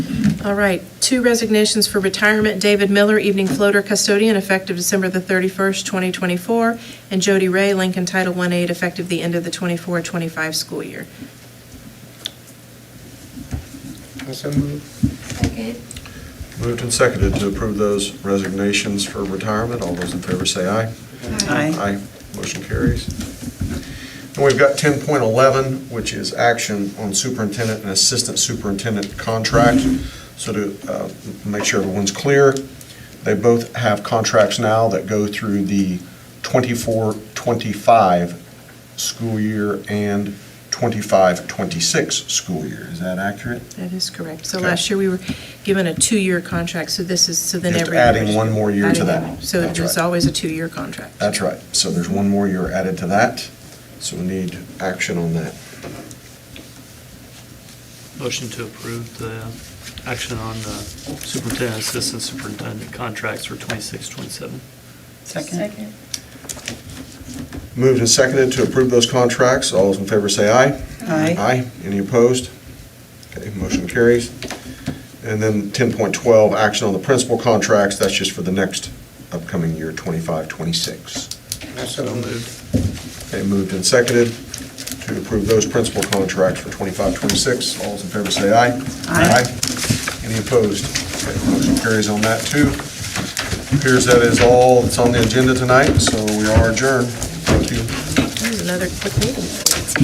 All right, two resignations for retirement. David Miller, evening floater custodian, effective December the 31st, 2024, and Jody Ray, Lincoln Title I aide, effective the end of the 24-25 school year. Also move. Second. Moved and seconded to approve those resignations for retirement. All those in favor say aye. Aye. Motion carries. And we've got 10.11, which is action on superintendent and assistant superintendent contract. So to uh, make sure everyone's clear, they both have contracts now that go through the 24-25 school year and 25-26 school year. Is that accurate? That is correct. So Okay. last year, we were given a two-year contract, so this is, so then Just every year. adding one more year to Adding that. one. So That's it's right. always a two-year contract. That's right. So there's one more year added to that, so we need action on that. Motion to approve the action on the superintendent, assistant superintendent contracts for 26, 27. Second. Moved and seconded to approve those contracts. All those in favor say aye. Aye. Aye. Any opposed? Okay, motion carries. And then 10.12, action on the principal contracts. That's just for the next upcoming year, 25, 26. Also move. Okay, moved and seconded to approve those principal contracts for 25, 26. All those in favor say aye. Aye. Any opposed? Okay, Motion carries on that too. Appears that is all that's on the agenda tonight, so we are adjourned. Thank you. That was another quick meeting.